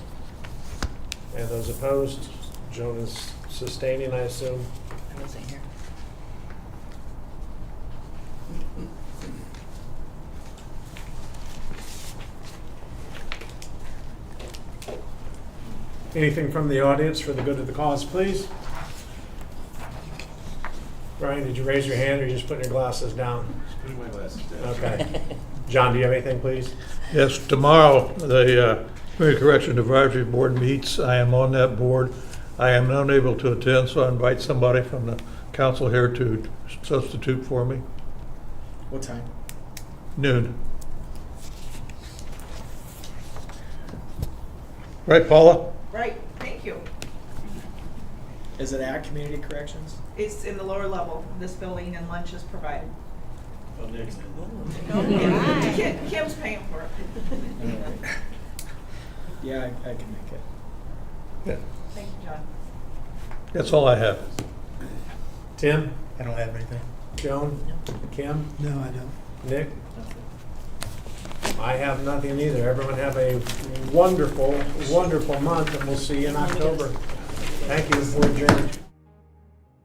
And those opposed, Joan is sustaining, I assume. I wasn't here. Anything from the audience for the good of the cause, please? Brian, did you raise your hand or you just putting your glasses down? Putting my glasses down. Okay. John, do you have anything, please? Yes, tomorrow, the uh, Community Correction Advisory Board meets. I am on that board. I am unable to attend, so I invite somebody from the council here to substitute for me. What time? Noon. Right, Paula? Right, thank you. Is it at Community Corrections? It's in the lower level, of this building, and lunch is provided. Oh, next. No, Kim- Kim- Kim's paying for it. Yeah, I, I can make it. Yeah, Thank you, John. That's all I have. Tim, I don't have anything. Joan, Kim, No, I don't. Nick? I have nothing either. Everyone have a wonderful, wonderful month, and we'll see you in October. Thank you for adjourned.